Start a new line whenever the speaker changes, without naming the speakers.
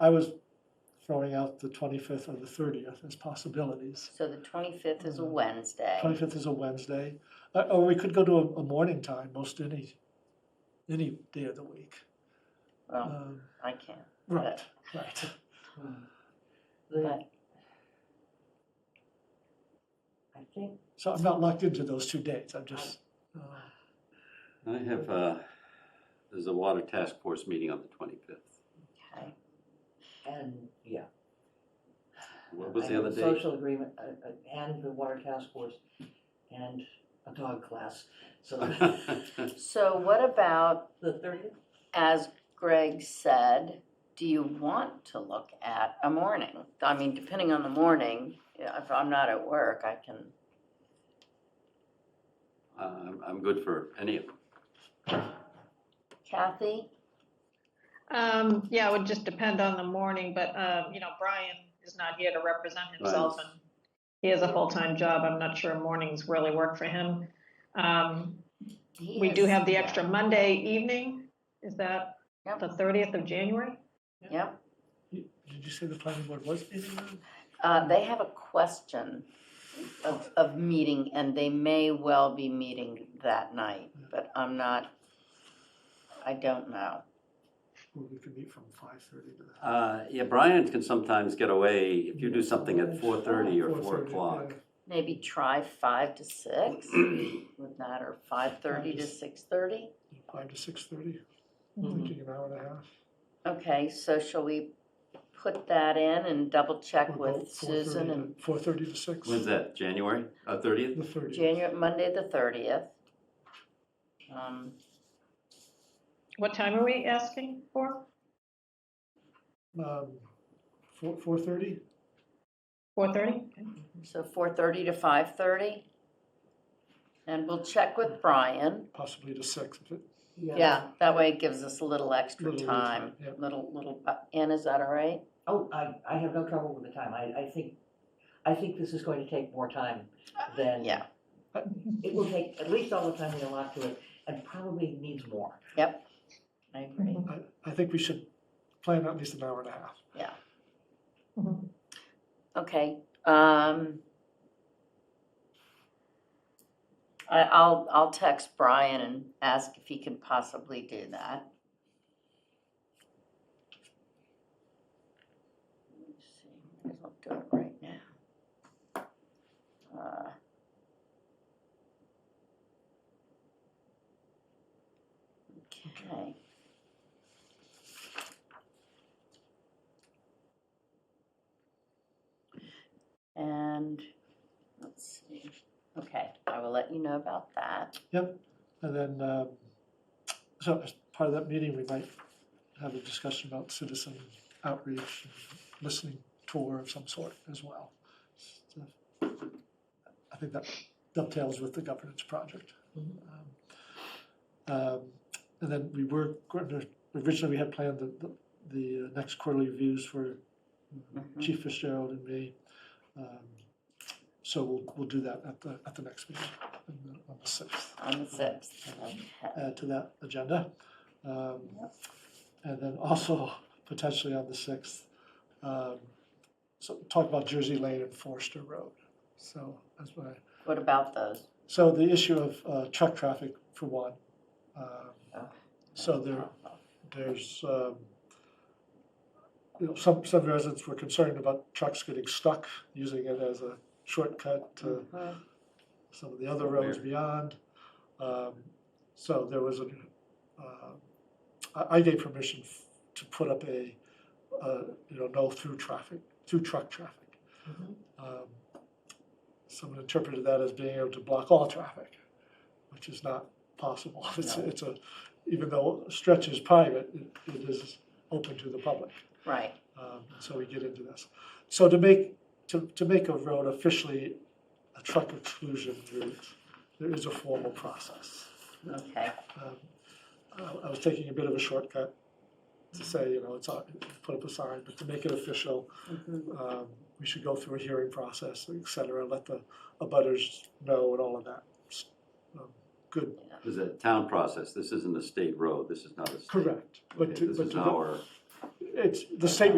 I was throwing out the twenty-fifth or the thirtieth as possibilities.
So the twenty-fifth is a
Mm.
Mhm.
Wednesday.
Twenty-fifth is a Wednesday, Uh, or we could go to a, a morning time, most any, any day of the week.
Well,
Um,
I can't,
Right, right.
The-
but
I think,
So I'm not locked into those two dates, I'm just, uh,
I have, uh, there's a water task force meeting on the twenty-fifth.
okay.
and, yeah.
What was
I
the
have
other
a
day?
Social agreement, uh, uh, and the water task force, and a dog class, so
So what about,
the thirtieth?
as Greg said, do you want to look at a morning? I mean, depending on the morning, yeah, if I'm not at work, I can,
Uh, I'm, I'm good for any of them.
Kathy?
Um, yeah, it would just depend on the morning, but, um, you know, Brian is not here to represent himself
Right.
and he has a full-time job. I'm not sure mornings really work for him. Um,
He
we do
is-
have the
yeah.
extra Monday evening. Is that
Yep.
the thirtieth of January?
Yep,
you- did you say the planning board was meeting room?
uh, they have a question of, of meeting and they may well be meeting that night, but I'm not, I don't know.
Or we could meet from five-thirty to that.
Uh, yeah, Brian can sometimes get away if you do something at four-thirty or four
4:30,
o'clock.
yeah.
Maybe try five to six, would that, or five thirty to six thirty?
Five to six-thirty,
Mm-hmm.
Mhm.
thinking an hour and a half.
Okay, so shall we put that in and double check with Susan and
Four-thirty to six.
When's that, January, uh, thirtieth?
The thirtieth.
January, Monday the thirtieth? Um,
What time are we asking for?
Um, four, four-thirty?
Four thirty?
so four thirty to five thirty? And we'll check with Brian.
possibly to six. if it-
Yeah, that way it gives us a little extra
Little lead
time,
time, yeah.
little, little, bu- Ann, is that all right?
Oh, I, I have no trouble with the time, I, I think, I think this is going to take more time than.
Yeah.
It will take at least all the time we allot to it, and probably needs more.
I agree.
I, I think we should plan at least an hour and a half.
Mhm.
Okay, um. I, I'll, I'll text Brian and ask if he can possibly do that. Let me see, might as well do it right now. Uh, Okay. And, let's see, okay, I will let you know about that.
And then, um, so as part of that meeting, we might have a discussion about citizen outreach, and listening tour of some sort as well. So, I think that dovetails with the governance project.
Mhm.
Um, um, And then we were, going to- originally we had planned the, the- the uh, next quarterly reviews for uh,
Mhm.
Chief Fitzgerald and me. Um, So we'll, we'll do that at the, at the next meeting on the- on the sixth
On the sixth.
add uh, to that agenda. Um, And then also potentially on the 6th, um, so talk about Jersey Lane and Forster Road. So that's why,
What about those?
so the issue of uh, truck traffic for one. um, So there, there's, um, you know, some, some residents were concerned about trucks getting stuck, using it as a shortcut to
Mhm.
some of the other roads
Where?
beyond. Um, So there was a, uh, I, I gave permission f- to put up a, uh, you know, no through traffic, through truck traffic.
Mhm.
Um, Someone interpreted that as being able to block all traffic, which is not possible. It's,
No.
it's a, even though Stretch is private, it, it is open to the public.
Right,
Um, so we get into this. So to make, to, to make a road officially a truck exclusion route, there is a formal process.
okay,
Um, I, I was taking a bit of a shortcut to say, you know, it's, on- put up a sign, but to make it official,
Mhm.
um, we should go through a hearing process, et cetera, let the abutters know and all of that. S- um, Good,
This is a town process. This isn't a state road. This is not a state.
correct. But
Okay,
to-
This
but
is
to go-
our.
It's, the state